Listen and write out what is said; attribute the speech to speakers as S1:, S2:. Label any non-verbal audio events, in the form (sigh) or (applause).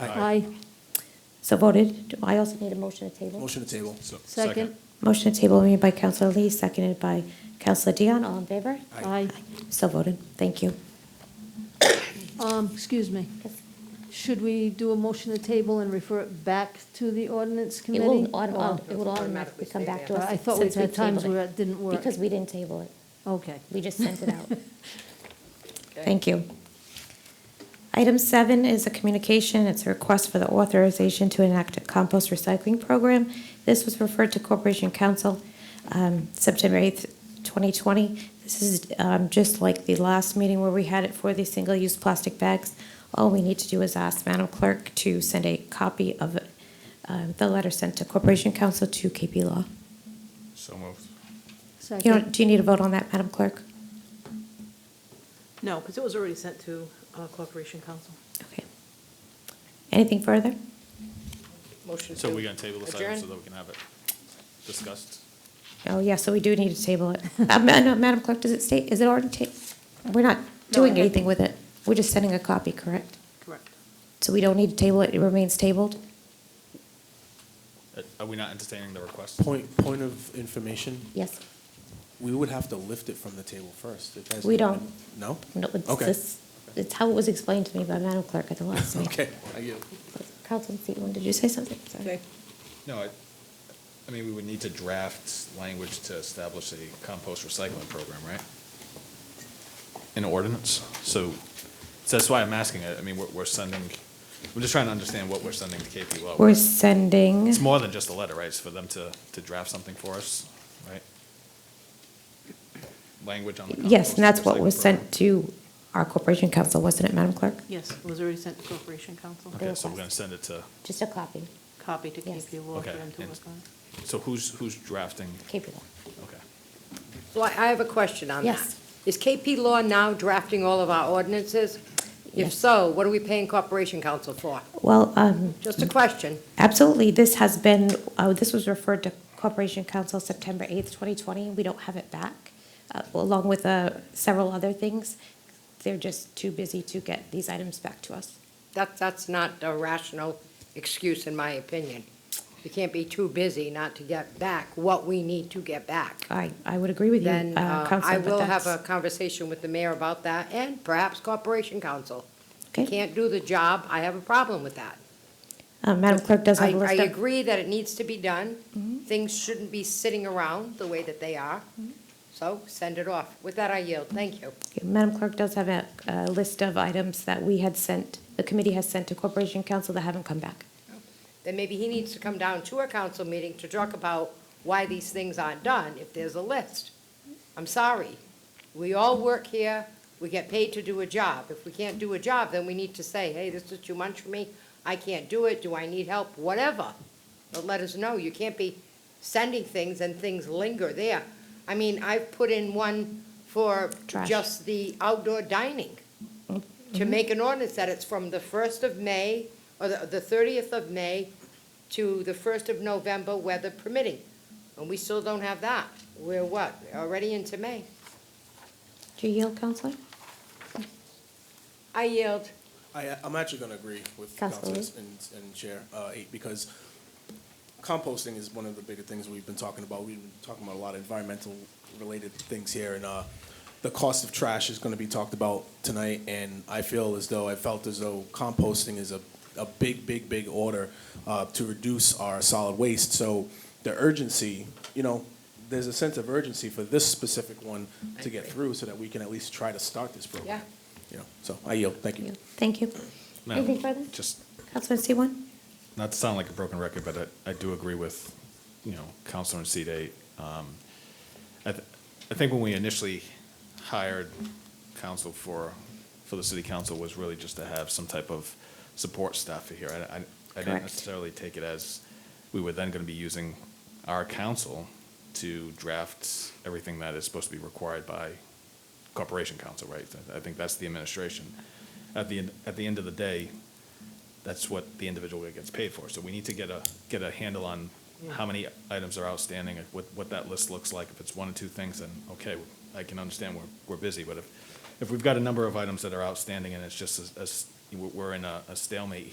S1: Aye.
S2: So voted. Do I also need a motion to table?
S1: Motion to table.
S3: So-
S4: Second.
S2: Motion to table made by Counselor Lee, seconded by Counselor Dion. All in favor?
S4: Aye.
S2: So voted. Thank you.
S4: Um, excuse me. Should we do a motion to table and refer it back to the ordinance
S2: It
S4: committee?
S2: will auto-
S4: Or-
S2: it will automatically come back to us.
S4: I thought we
S2: since
S4: had times
S2: tabled
S4: where it didn't work.
S2: Because we didn't table it.
S4: Okay.
S2: We just sent it out. Thank you. Item seven is a communication. It's a request for the authorization to enact a compost recycling program. This was referred to Corporation Council um, September 8th, 2020. This is um, just like the last meeting where we had it for the single-use plastic bags. All we need to do is ask Madam Clerk to send a copy of um, the letter sent to Corporation Council to KP Law.
S3: So moved.
S2: You
S4: Second.
S2: don't- Do you need a vote on that, Madam Clerk?
S5: No, because it was already sent to uh, Corporation Council.
S2: Okay. Anything further?
S5: Motion
S3: So we're gonna table this item
S5: adjourn?
S3: so that we can have it discussed?
S2: Oh, yeah, so we do need to table it. (laughs) Uh, ma- no, Madam Clerk, does it state, is it already ta, we're not doing
S5: it-
S2: anything with it. We're just sending a copy, correct?
S5: Correct.
S2: So we don't need to table it, it remains tabled?
S3: Uh, Are we not entertaining the request?
S1: Point, point of information,
S2: Yes.
S1: we would have to lift it from the table first. It hasn't
S2: We don't.
S1: been- No?
S2: No, it's
S1: Okay.
S2: this, it's how it was explained to me by Madam Clerk at the last
S1: (laughs)
S2: meeting.
S1: Okay, I get it.
S2: Councilman Seaton, did you say something? Sorry.
S3: No, I, I mean, we would need to draft language to establish a compost recycling program, right? An ordinance, so, so that's why I'm asking it, I mean, we're, we're sending, we're just trying to understand what we're sending to KP Law.
S2: We're sending,
S3: It's more than just a letter, right, it's for them to, to draft something for us, right? Language on the compost.
S2: yes, and that's what
S3: recycling
S2: was
S3: program.
S2: sent to our Corporation Council, wasn't it, Madam Clerk?
S5: Yes, it was already sent to Corporation Council.
S3: Okay, so we're gonna send it to,
S2: Just a copy,
S5: Copy to
S2: Yes.
S5: KP Law for
S3: Okay,
S5: them to
S3: and-
S5: work on.
S3: so who's, who's drafting,
S2: KP law.
S3: okay.
S6: Well, I I have a question on that.
S2: Yes.
S6: Is KP Law now drafting all of our ordinances? If
S2: Yes.
S6: so, what are we paying Corporation Council for?
S2: Well, um,
S6: Just a question.
S2: Absolutely. This has been, uh, this was referred to Corporation Council September 8th, 2020. We don't have it back, uh, along with uh, several other things. They're just too busy to get these items back to us.
S6: That, that's not a rational excuse, in my opinion. You can't be too busy not to get back what we need to get back.
S2: I, I would agree with you,
S6: Then
S2: uh,
S6: uh, I
S2: Counselor,
S6: will
S2: but
S6: have a
S2: that's.
S6: conversation with the mayor about that, and perhaps Corporation Council.
S2: okay.
S6: Can't do the job, I have a problem with that.
S2: Uh, Madam Clerk does
S6: I,
S2: have a
S6: I
S2: list of. Mm-hmm.
S6: agree that it needs to be done. Things shouldn't be sitting around the way that they are. So send it off. With that, I yield. Thank you.
S2: Okay, Madam Clerk does have a a list of items that we had sent, the committee has sent to Corporation Council that haven't come back.
S6: Then maybe he needs to come down to a council meeting to talk about why these things aren't done, if there's a list. I'm sorry. We all work here. We get paid to do a job. If we can't do a job, then we need to say, hey, this is too much for me. I can't do it. Do I need help? Whatever. But let us know. You can't be sending things and things linger there. I mean, I've put in one for
S2: Trash.
S6: just the outdoor dining to make an ordinance that it's from the first of May, or the, the thirtieth of May to the first of November, weather permitting. And we still don't have that. We're what, already into May?
S2: Do you yield, Counselor?
S6: I yield.
S1: I, I'm actually gonna agree with
S2: Councilor Lee?
S1: Councilors and, and Chair, uh, eight, because composting is one of the bigger things we've been talking about. We've been talking about a lot of environmental related things here and, uh, the cost of trash is gonna be talked about tonight and I feel as though, I felt as though composting is a, a big, big, big order, uh, to reduce our solid waste. So the urgency, you know, there's a sense of urgency for this specific one to get through so that we can at least try to start this program.
S6: Yeah.
S1: You know, so I yield, thank you.
S2: Thank you.
S3: Madam,
S2: Anything further?
S3: Just,
S2: Counselor Seaborn?
S3: not to sound like a broken record, but I, I do agree with, you know, Counselor in seat eight. Um, I, th- I think when we initially hired counsel for, for the city council was really just to have some type of support staff here. I, I, I didn't
S2: Correct.
S3: necessarily take it as we were then gonna be using our council to draft everything that is supposed to be required by corporation council, right? I think that's the administration. At the, end- at the end of the day, that's what the individual gets paid for. So we need to get a, get a handle on how many items are outstanding, what, what that list looks like. If it's one or two things, then, okay, I can understand we're, we're busy. But if, if we've got a number of items that are outstanding and it's just as, as, we're- we're in a a stalemate